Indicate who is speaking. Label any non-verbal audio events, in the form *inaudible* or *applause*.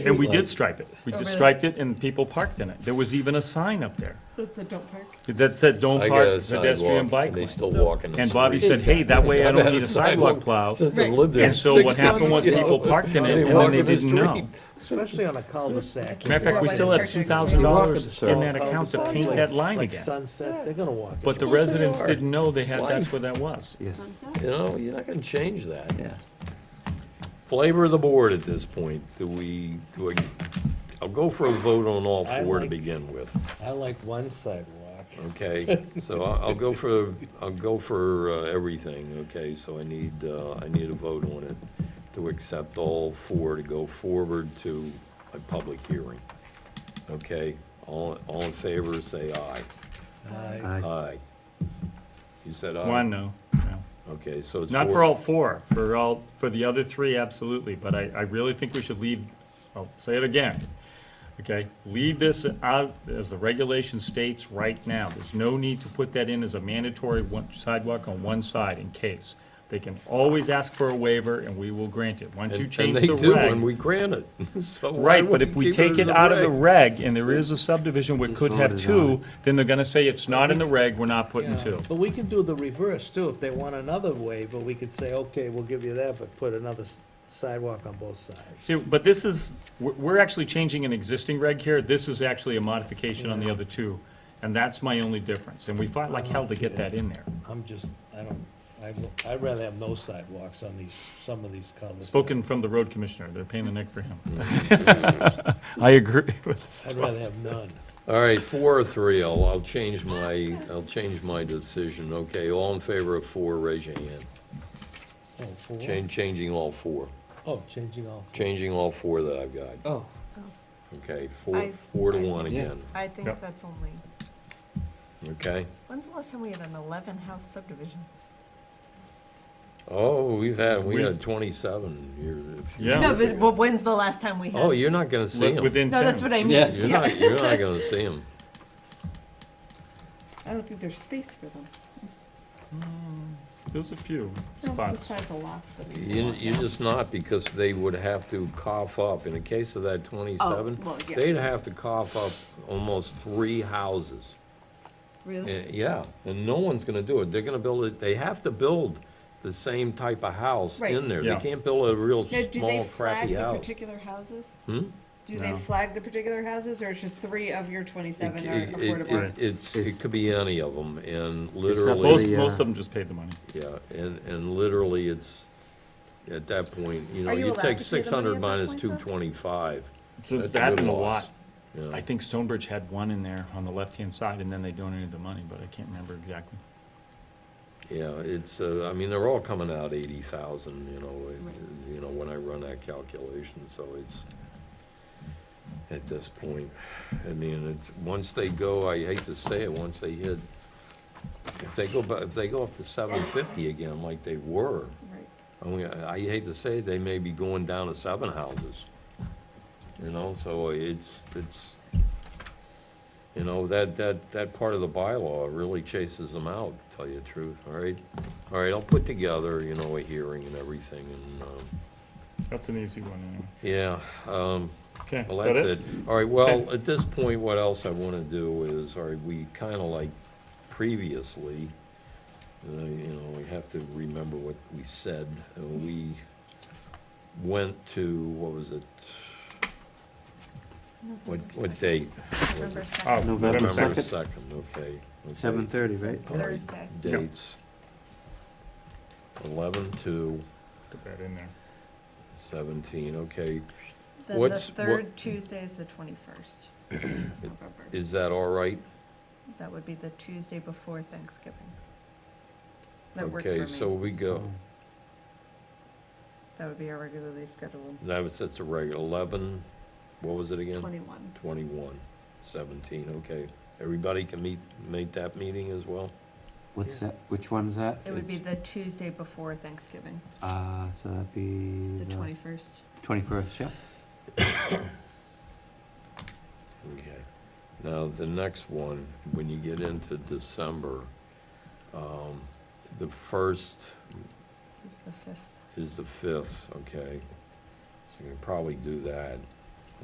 Speaker 1: And we did stripe it. We
Speaker 2: Oh,
Speaker 1: just
Speaker 2: really?
Speaker 1: striped it and people parked in it. There was even a sign up there
Speaker 2: That's a don't park.
Speaker 1: that said, don't
Speaker 3: I got a
Speaker 1: park pedestrian
Speaker 3: sidewalk,
Speaker 1: bike
Speaker 3: and they
Speaker 1: lane.
Speaker 3: still walk in the street.
Speaker 1: And Bobby said, hey, that way I
Speaker 3: *laughs* I've
Speaker 1: don't
Speaker 3: had
Speaker 1: need a sidewalk plow.
Speaker 3: Since I
Speaker 2: Right.
Speaker 3: lived there.
Speaker 1: And so what
Speaker 3: 60
Speaker 1: happened was
Speaker 3: years
Speaker 1: people
Speaker 3: ago,
Speaker 1: parked in it
Speaker 3: they
Speaker 1: and then
Speaker 3: walk
Speaker 1: they
Speaker 3: in the
Speaker 1: didn't know.
Speaker 3: street.
Speaker 4: Especially on a cul-de-sac.
Speaker 1: Matter of fact, we
Speaker 2: Yeah,
Speaker 1: still
Speaker 2: like
Speaker 1: have
Speaker 2: the
Speaker 1: two
Speaker 2: purchase.
Speaker 1: thousand
Speaker 4: They walk in the
Speaker 1: dollars in that
Speaker 4: circle.
Speaker 1: account to
Speaker 4: Cul-de-sac,
Speaker 1: paint
Speaker 4: like-
Speaker 1: that line
Speaker 4: Like
Speaker 1: again.
Speaker 4: Sunset, they're gonna walk.
Speaker 1: But the
Speaker 3: course they
Speaker 1: residents
Speaker 3: are.
Speaker 1: didn't know they had, that's
Speaker 3: Life.
Speaker 1: where that was.
Speaker 3: You know, you're not gonna change that.
Speaker 5: Yeah.
Speaker 3: Flavor of the board at this point, do we, do I, I'll go for a vote on all
Speaker 4: I
Speaker 3: four to
Speaker 4: like-
Speaker 3: begin with,
Speaker 4: I like one sidewalk.
Speaker 3: okay? So I'll, I'll go for, I'll go for uh, everything, okay? So I need, uh, I need a vote on it to accept all four to go forward to a public hearing. Okay, all, all in favor, say aye.
Speaker 1: Uh,
Speaker 4: I-
Speaker 5: Aye.
Speaker 3: Aye. You said aye?
Speaker 1: One, no, no.
Speaker 3: Okay, so it's four.
Speaker 1: Not for all four, for all, for the other three, absolutely, but I, I really think we should leave, I'll say it again. Okay, leave this out as the regulation states right now. There's no need to put that in as a mandatory one- sidewalk on one side in case. They can always ask for a waiver and we will grant it. Once
Speaker 3: And-
Speaker 1: you change
Speaker 3: And
Speaker 1: the
Speaker 3: they do, and
Speaker 1: reg.
Speaker 3: we grant it, *laughs* so why
Speaker 1: Right, but
Speaker 3: would
Speaker 1: if we
Speaker 3: keep
Speaker 1: take
Speaker 3: as
Speaker 1: it
Speaker 3: a
Speaker 1: out of the
Speaker 3: reg?
Speaker 1: reg and there is a subdivision which could have
Speaker 5: voted on
Speaker 1: two, then they're gonna say it's not in the reg, we're not putting
Speaker 4: Yeah,
Speaker 1: two.
Speaker 4: But we can do the reverse too, if they want another way, but we could say, okay, we'll give you that, but put another s- sidewalk on both sides.
Speaker 1: See, but this is, we're, we're actually changing an existing reg here, this is actually a modification on the other two, and that's my only difference, and we fought like hell to get that in there.
Speaker 4: I'm just, I don't, I, w- I'd rather have no sidewalks on these, some of these cul
Speaker 1: Spoken from the road commissioner, they're paying the neck for him.
Speaker 3: *laughs*
Speaker 1: I agree with,
Speaker 4: I'd rather have none.
Speaker 3: All right, four or three, I'll, I'll change my, I'll change my decision, okay? All in favor of four, raise your hand.
Speaker 4: Oh, four?
Speaker 3: Change, changing all four,
Speaker 4: Oh, changing all. four.
Speaker 3: changing all four that I've got,
Speaker 5: Oh,
Speaker 3: okay? Four,
Speaker 2: I-
Speaker 3: four to one
Speaker 5: Yeah.
Speaker 3: again,
Speaker 2: I think
Speaker 1: Yep.
Speaker 2: that's only,
Speaker 3: okay?
Speaker 2: when's the last time we had an eleven house subdivision?
Speaker 3: Oh, we've had, we
Speaker 1: We-
Speaker 3: had twenty-seven years. a few
Speaker 1: Yeah.
Speaker 2: No,
Speaker 3: years
Speaker 2: but,
Speaker 3: ago.
Speaker 2: but when's the last time we had?
Speaker 3: Oh, you're not gonna see them.
Speaker 1: within
Speaker 2: No, that's
Speaker 1: ten.
Speaker 2: what I mean.
Speaker 5: Yeah.
Speaker 3: You're not, you're not gonna see them.
Speaker 2: I don't think there's space for them.
Speaker 1: There's a few
Speaker 2: No, The
Speaker 1: spots.
Speaker 2: size of lots that people
Speaker 3: You,
Speaker 2: want
Speaker 3: you're
Speaker 2: now.
Speaker 3: just not, because they would have to cough up, in the case of that twenty-seven,
Speaker 2: Oh, well, yeah.
Speaker 3: they'd have to cough up almost three houses.
Speaker 2: Really?
Speaker 3: Eh, Yeah, and no one's gonna do it, they're gonna build it, they have to build the same type of house
Speaker 2: Right.
Speaker 3: in there.
Speaker 1: Yeah.
Speaker 3: They can't build a real
Speaker 2: Now, do they
Speaker 3: small
Speaker 2: flag
Speaker 3: crappy
Speaker 2: the
Speaker 3: house.
Speaker 2: particular houses?
Speaker 3: Hmm?
Speaker 2: Do they
Speaker 1: No.
Speaker 2: flag the particular houses, or it's just three of your twenty-seven
Speaker 3: It-
Speaker 2: are
Speaker 3: it- it-
Speaker 2: affordable?
Speaker 3: it- It's, it
Speaker 5: It's-
Speaker 3: could be any of them, and
Speaker 1: Most,
Speaker 3: literally,
Speaker 5: the, uh,
Speaker 1: most of them just paid the money.
Speaker 3: yeah, and, and literally, it's, at that point, you know,
Speaker 2: Are you
Speaker 3: you
Speaker 2: allowed
Speaker 3: take
Speaker 2: to pay
Speaker 3: six
Speaker 2: the money
Speaker 3: hundred
Speaker 2: at that
Speaker 3: minus
Speaker 2: point, though?
Speaker 3: two twenty-five.
Speaker 1: So
Speaker 3: That's a
Speaker 1: that
Speaker 3: good
Speaker 1: and a
Speaker 3: loss.
Speaker 1: lot.
Speaker 3: Yeah.
Speaker 1: I think Stonebridge had one in there on the left-hand side, and then they donated the money, but I can't remember exactly.
Speaker 3: Yeah, it's, uh, I mean, they're all coming out eighty thousand, you know, it- you know, when I run that calculation, so it's, at this point, I mean, it's, once they go, I hate to say it, once they hit, if they go, bu- if they go up to seven fifty again like they were,
Speaker 2: Right.
Speaker 3: I mean, I I hate to say, it, they may be going down to seven houses. You know, so it's, it's, you know, that, that, that part of the bylaw really chases them out, to tell you the truth, all right? All right, I'll put together, you know, a hearing and everything, and, um,
Speaker 1: That's an easy one, anyway.
Speaker 3: yeah, um,
Speaker 1: Okay,
Speaker 3: well,
Speaker 1: is that
Speaker 3: that's it. All right, well, at this point, what else I want to do is, all right, we kind of like previously, uh, you know, we have to remember what we said. Uh, We went to, what was it? What, what date?
Speaker 2: November
Speaker 1: Oh,
Speaker 2: second,
Speaker 1: November
Speaker 5: November
Speaker 3: November
Speaker 1: second.
Speaker 5: 2nd.
Speaker 3: second, okay. okay.
Speaker 5: seven thirty, right?
Speaker 3: All right,
Speaker 2: Thursday.
Speaker 1: Yeah.
Speaker 3: Dates. Eleven to
Speaker 1: Put that in there.
Speaker 3: seventeen, okay.
Speaker 2: then the
Speaker 3: What's- what-
Speaker 2: third Tuesday is the
Speaker 3: *clears throat*
Speaker 2: twenty-first. November.
Speaker 3: Is that all right?
Speaker 2: That would be the Tuesday before Thanksgiving. That works for
Speaker 3: Okay, so
Speaker 2: me.
Speaker 3: we go.
Speaker 5: Oh.
Speaker 2: That would be our regularly scheduled
Speaker 3: That was, that's a regular, eleven, what was it again?
Speaker 2: twenty-one.
Speaker 3: Twenty-one, seventeen, okay. Everybody can meet, make that meeting as well?
Speaker 5: What's that, which one's that?
Speaker 2: It would be the Tuesday before Thanksgiving,
Speaker 5: Uh, so that'd be
Speaker 2: the
Speaker 3: Mhm.
Speaker 5: the
Speaker 2: twenty-first.
Speaker 5: twenty-first, yeah?
Speaker 3: Okay. Now, the next one, when you get into December, um, the first
Speaker 2: It's the fifth.
Speaker 3: is the fifth, okay? So you can probably do that.